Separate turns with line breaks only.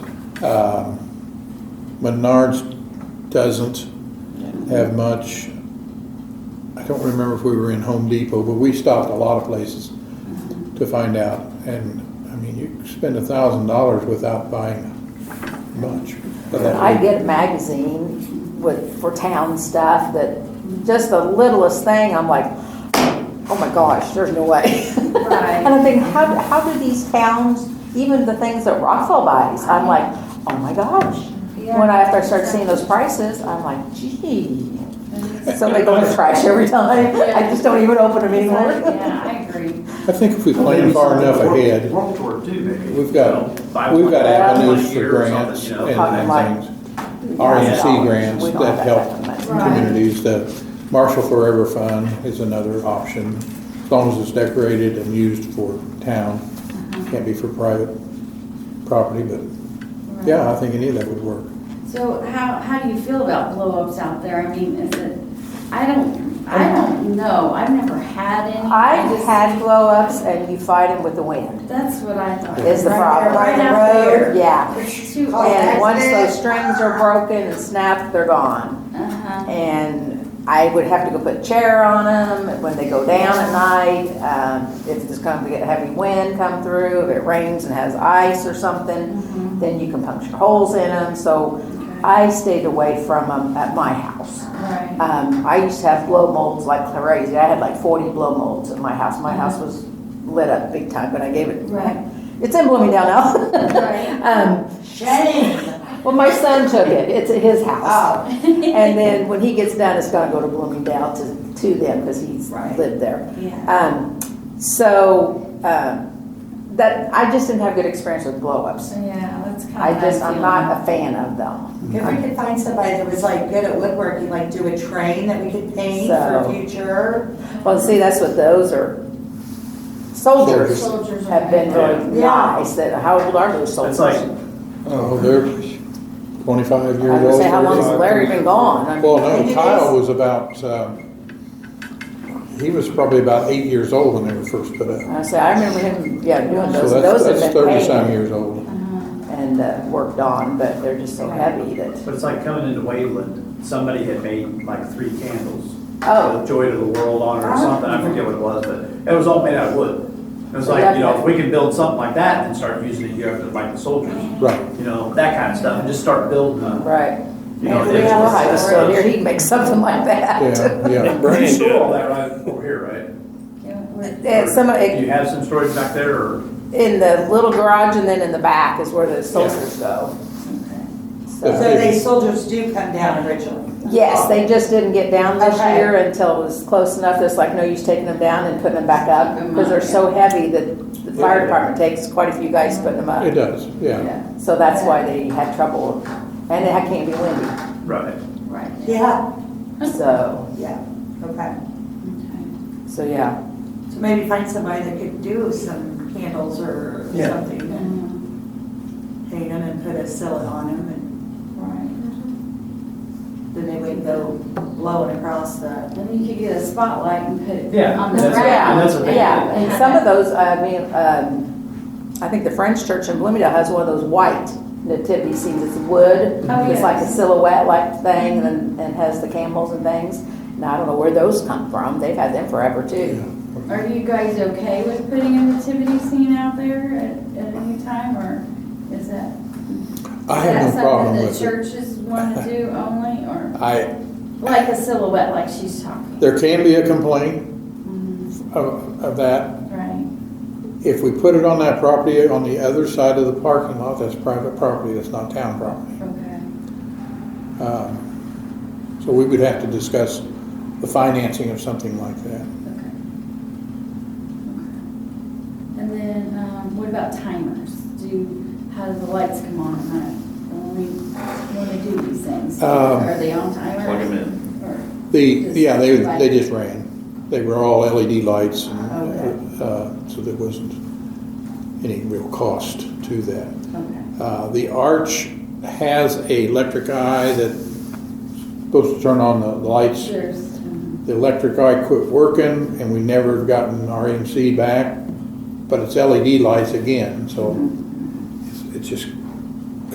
Um, Menards doesn't have much. I don't remember if we were in Home Depot, but we stopped a lot of places to find out. And, I mean, you spend a thousand dollars without buying much. But that
I
week-
get a magazine with, for town stuff that, just the littlest thing, I'm like, oh my gosh, there's no way.
Right.
And I think, how, how do these towns, even the things that Rockville buys, I'm like, oh my gosh. When I, after I start seeing those prices, I'm like, gee, somebody going to trash every time. I just don't even open them anymore.
Yeah, I agree.
I think if we plan far enough ahead,
Work toward two, maybe.
We've got-
You know, five
we've got
one- one
avenues for
year or something,
grants
you
and
know.
and things. RMC grants
We don't
that
have
help
kind of money.
Right.
communities. The Marshall Forever Fund is another option, as long as it's decorated and used for town. Can't be for private property, but yeah, I think any of that would work.
So how, how do you feel about blow-ups out there? I mean, is it, I don't, I don't know. I've never had any.
I've
just-
had blow-ups and you fight them with the wind,
That's what I thought.
is the
Right
problem.
there, right
out
out
there.
Yeah.
It's too.
And once those
that's it.
strings are broken and snapped, they're gone.
Uh-huh.
And I would have to go put a chair on them when they go down at night. Um, If there's going to get heavy wind come through, if it rains and has ice or
Mm-hmm.
something, then you can puncture holes in them. So I stayed away from them at my house.
Right.
Um, I used to have blow molds like crazy. I had like 40 blow molds at my house.
Mm-hmm.
My house was lit up big time, but I gave it.
Right.
It's in Bloomingdale
Right.
now. um,
Shane.
well, my son took it. It's at his house.
Oh,
And then when he gets done, it's going to go to Bloomingdale to, to them because he's
Right.
lived there.
Yeah.
Um, so um, that I just didn't have good experience with blow ups.
Yeah, that's kind of.
I just I'm not a fan of them.
if we could find somebody that was like good at woodworking, like do a train that we could paint
So-
for future.
Well, see, that's what those are. Soldiers,
Soldiers are
have been really
Yeah.
nice. That how old are those soldiers?
It's like,
Oh, they're twenty-five
I
years
would
old.
say how long has
35,
Larry been gone? I mean,
Well,
Did
no,
you
Kyle
guys-
was about, um, he was probably about eight years old when they were first put up.
I say I remember him. Yeah, doing
So
those. those
that's, that's
have been
thirty-some
painted
years old.
and uh, worked on, but they're just so heavy that.
but it's like coming into Wayland, somebody had made like three candles.
Oh. Uh-huh.
with Joy to the World on it or something, I forget what it was, but it was all made out of wood. It was like, you know, if we can build something like that and start using it here for like the soldiers.
Right.
You know, that kind of stuff, and just start building, uh,
Right.
you know.
And if we had Ohio
it's-
still here, he'd make something like that.
Yeah, yeah.
You
Brandon-
store all that right over here, right?
And some, of
Do you
it-
have some storage back there, or?
in the little garage and then in the back is where the soldiers go.
So
So-
Yeah.
they soldiers do come down originally.
Yes, they just didn't get down this
Okay.
year until it was close enough, it's like no use taking them down and putting them back up, because they're so heavy that the fire department takes quite a few guys putting them
It
up.
does, yeah.
Yeah. So that's why they had trouble, and it can't be windy,
Right.
Right.
Yeah,
so,
yeah, okay.
Okay.
so yeah.
So maybe find somebody that could do some candles or
Yeah.
something and paint them and put a silhouette on them and
Right.
then they would go blowing across the.
Then you could get a spotlight and put it
Yeah,
on the
that's what-
ground.
and that's what they
Yeah, and some of those, I mean, um, I think the French church in Bloomingdale has one of those white nativity scenes, it's wood.
Oh,
It's like a
yes.
silhouette like thing and, and has the camels and things. Now, I don't know where those come from, they've had them forever too.
Are you guys okay with putting a nativity scene out there at, at any time, or is that?
I have
is
no
that
problem with
Something
it.
the churches want to do only, or
I,
like a silhouette, like she's talking,
there can be a complaint Mm-hmm. of, of that.
right?
If we put it on that property on the other side of the parking lot, that's private property, that's not town property.
Okay.
Um, So we would have to discuss the financing of something like that.
Okay. Okay. And then, um, what about timers? Do, how do the lights come on at night? When we, when we do these things?
Um,
Are they on timers?
Plug 'em
in.
The, yeah, they, they just ran. They were all LED lights, and,
Okay.
uh, so there wasn't any real cost to that.
Okay.
Uh, The arch has a electric eye that's supposed to turn on the lights.
There's, um,
The electric eye quit working, and we never have gotten RMC back, but it's LED lights E again, so